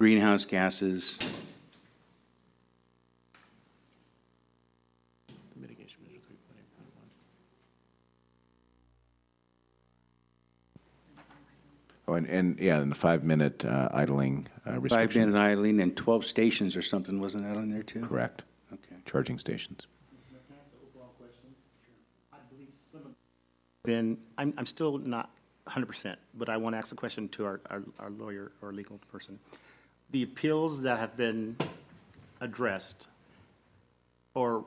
greenhouse gases. Mitigation measure three point eight point one. Oh, and, and, yeah, and the five-minute uh, idling uh, Five restriction. minute idling and 12 stations or something, wasn't that on there too? Correct. Okay. Charging stations. Then, I'm, I'm still not hundred percent, but I want to ask a question to our, our- our lawyer or legal person. The appeals that have been addressed or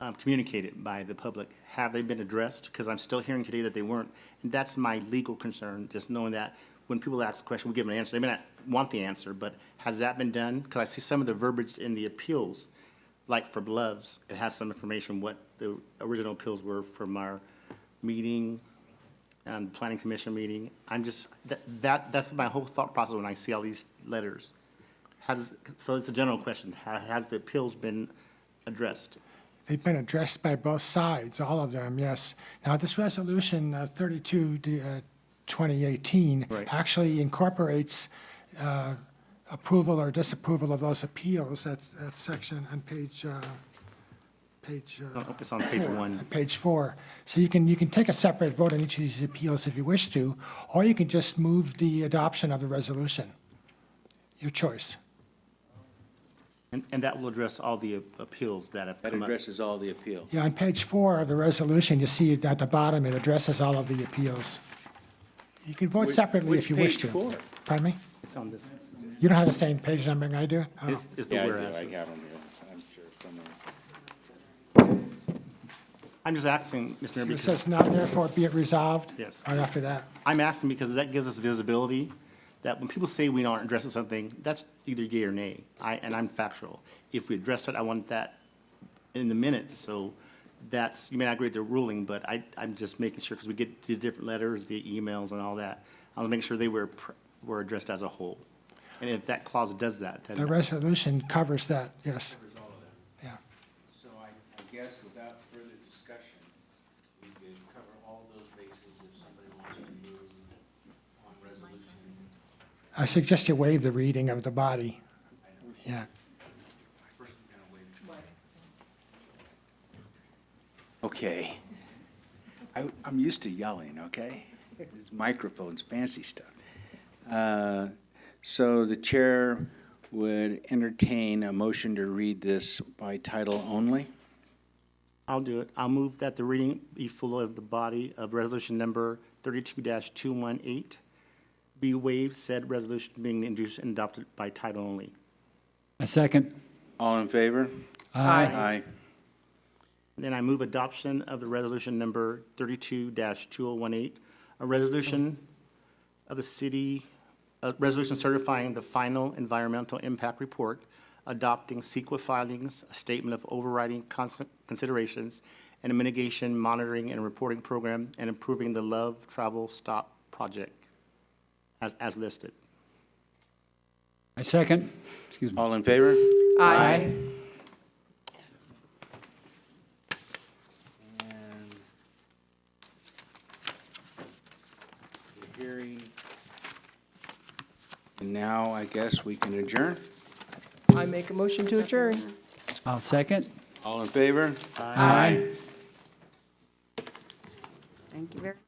um, communicated by the public, have they been addressed? Because I'm still hearing today that they weren't. And that's my legal concern, just knowing that when people ask a question, we give them an answer. They may not want the answer, but has that been done? Because I see some of the verbiage in the appeals, like for Loves, it has some information what the original appeals were from our meeting, um, planning commission meeting. I'm just, that, that, that's my whole thought process when I see all these letters. Has, so it's a general question. Ha- Has the appeals been addressed? They've been addressed by both sides, all of them, yes. Now, this resolution uh, 32, d- uh, 2018, Right. actually incorporates uh, approval or disapproval of those appeals, that, that section on page, uh, page. uh, Oh, It's on page one. page four. So you can, you can take a separate vote on each of these appeals if you wish to, or you can just move the adoption of the resolution. Your choice. And, and that will address all the appeals that have That come up. addresses all the appeal. Yeah, on page four of the resolution, you see it at the bottom, it addresses all of the appeals. You can vote Which- separately if which you wish page to. four? Pardon me? It's on this. You don't have the same page numbering I do? Oh. It's, it's the Yeah, I do, I whereas. have them here, I'm sure somewhere. I'm just asking, Mr. Mayor, It because, says now therefore be it resolved? Yes. Right after that. I'm asking because that gives us visibility, that when people say we aren't addressing something, that's either yea or nay. I, and I'm factual. If we addressed it, I want that in the minutes, so that's, you may not agree with the ruling, but I, I'm just making sure, because we get the different letters, the emails and all that. I want to make sure they were, pr- were addressed as a whole. And if that clause does that, then. The resolution covers that, yes. Yeah. So I, I guess without further discussion, we could cover all those bases if somebody wants to move on resolution. I suggest you waive the reading of the body. Yeah. First, we're gonna waive Okay. I, I'm used to yelling, okay? These Microphones, fancy stuff. Uh, So the chair would entertain a motion to read this by title only. I'll do it. I'll move that the reading be full of the body of resolution number thirty-two two one eight. Be waived said resolution being introduced and adopted by title only. A second. All in favor? Aye. Aye. Then I move adoption of the resolution number thirty-two two oh one eight, a resolution of the city, a resolution certifying the final environmental impact report, adopting CEQA filings, a statement of overriding cons- considerations, and a mitigation monitoring and reporting program, and improving the Love Travel Stop project as, as listed. A second. Excuse me. All in favor? Aye. And the hearing, And now I guess we can adjourn. I make a motion to adjourn. I'll second. All in favor? Aye. Thank you very much.